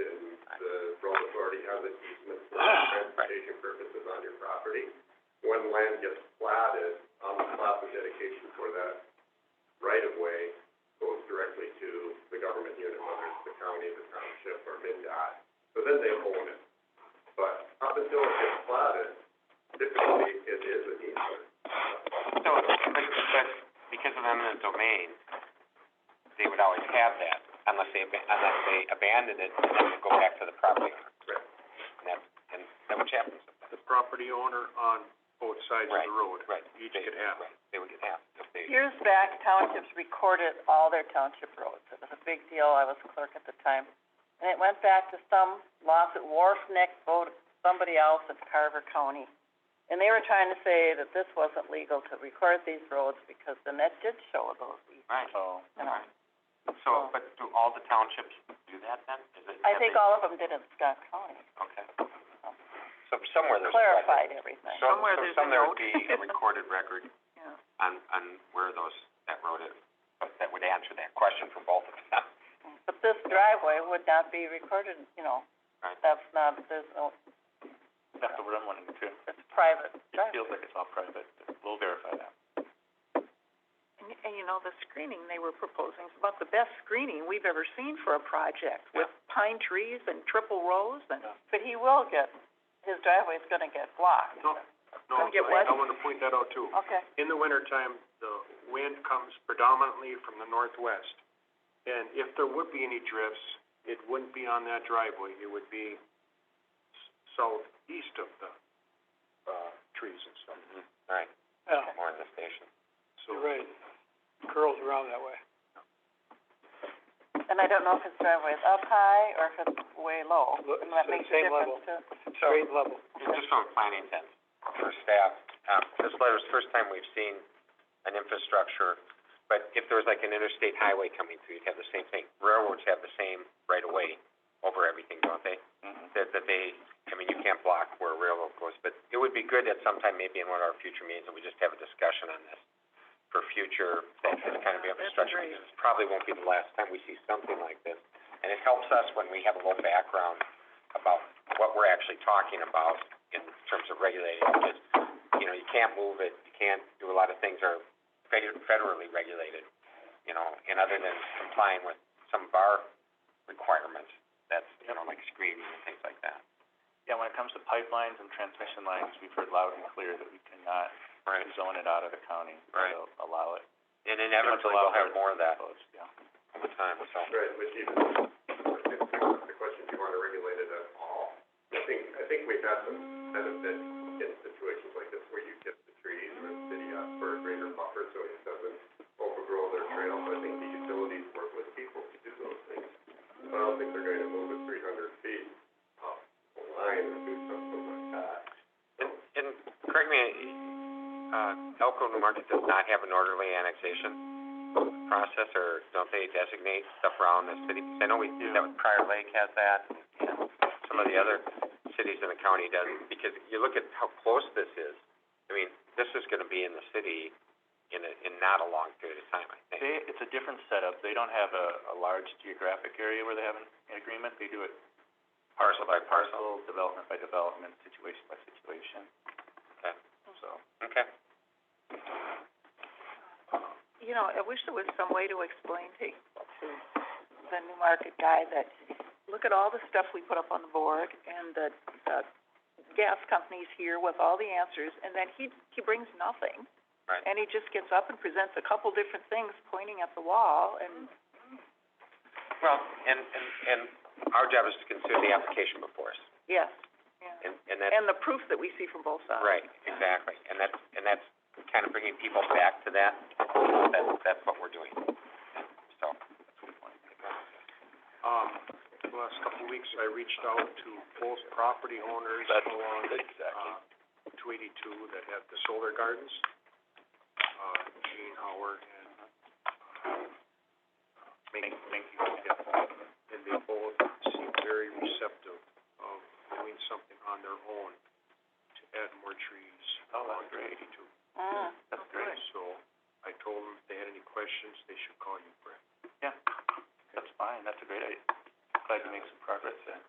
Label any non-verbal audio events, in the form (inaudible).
uh, Ah, so then they own it. But up until it gets platted, typically it is an easement. So, but, but because of eminent domain, they would always have that unless they, ab- unless they abandon it and then go back to the property owner. Right. And that's, and that which happens sometimes. the property owner on both sides of the road. Right. Each They- could have. Right, they would get half if they, Years back, townships recorded all their township roads. It was a big deal. I was clerk at the time. And it went back to some lawsuit, Wharf Neck, voted somebody else in Carver County. And they were trying to say that this wasn't legal to record these roads because then that did show those easements, right, you know. right. So, but do all the townships do that then? Is it? I have think they- all of them uh, did in Scott County, Okay. So somewhere there's a record. clarified everything. So- Somewhere so there's a somewhere would note. be a recorded record (laughs) Yeah. on, on where those, that road is, but that would answer that question for both of them. But this driveway would not be recorded, you know. Right. That's not, there's no, That's what I'm wondering too. it's private driveway. feels like it's all private. We'll verify that. And, and you know, the screening they were proposing is about the best screening we've ever seen for a project, with pine trees and triple rows and, But he will get, his driveway's gonna get blocked. No, no, Don't get wet. I, I wanna point that out too. Okay. In the wintertime, the wind comes predominantly from the northwest. And if there would be any drifts, it wouldn't be on that driveway. It would be s- southeast of the, uh, trees and stuff. Right, Yeah, more in the station. So, you're right. Curls around that way. And I don't know if his driveway is up high or if it's way low, Look, and that it's the makes a same difference too. So, Grade level. just from a planning sense, for staff, um, this letter's the first time we've seen an infrastructure, but if there was like an interstate highway coming through, you'd have the same thing. Railroads have the same right of way over everything, don't they? That, that they, I mean, you can't block where a railroad goes, but it would be good at some time, maybe in one of our future meetings, that we just have a discussion on this for future, that this kind of infrastructure, because this probably won't be the last time we see something like this. And it helps us when we have a little background about what we're actually talking about in terms of regulating, because, you know, you can't move it, you can't do a lot of things that are fed- federally regulated, you know, and other than complying with some of our requirements, that's, you know, like screening and things like that. Yeah, when it comes to pipelines and transmission lines, we've heard loud and clear that we cannot Right. zone it out of the county. Right. So Allow it, And inevitably, we'll have more of that close, yeah. over time, so. Right, which even, the question, do you wanna regulate it at all? I think, I think we've had some benefit in situations like this where you get the trees or the city up for a greater buffer so it doesn't overgrow their trail, but I think the utilities work with people to do those things. But I don't think they're gonna move it three hundred feet off the line or do something like that. And, and correct me, uh, Elko New Market does not have an orderly annexation process, or don't they designate stuff around the city? 'Cause I know we do that with Prior Lake has that, and some of the other cities in the county does, because you look at how close this is. I mean, this is gonna be in the city in a, in not a long period of time, I think. They, it's a different setup. They don't have a, a large geographic area where they have an, an agreement. They do it Parcel by parcel, development by development, situation by situation. Okay. So. Okay. you know, I wish there was some way to explain to, to the new market guy that, look at all the stuff we put up on the board and the, the gas companies here with all the answers, and then he, he brings nothing. Right. And he just gets up and presents a couple different things pointing at the wall and Well, and, and, and our job is to consider the application before us, Yes, Mm. and, and that's and the proof that we see from both sides. Right, exactly, and that's, and that's kind of bringing people back to that, that, that's what we're doing, so. um, the last couple of weeks, I reached out to both property owners along, uh, two eighty-two that had the solar gardens, uh, Gene Howard and, uh, Mink, Mink, and they both seem very receptive of doing something on their own to add more trees along two eighty-two. Mm. That's great. So I told them if they had any questions, they should call you, Brett. That's fine. That's a great idea. Glad to make some progress there.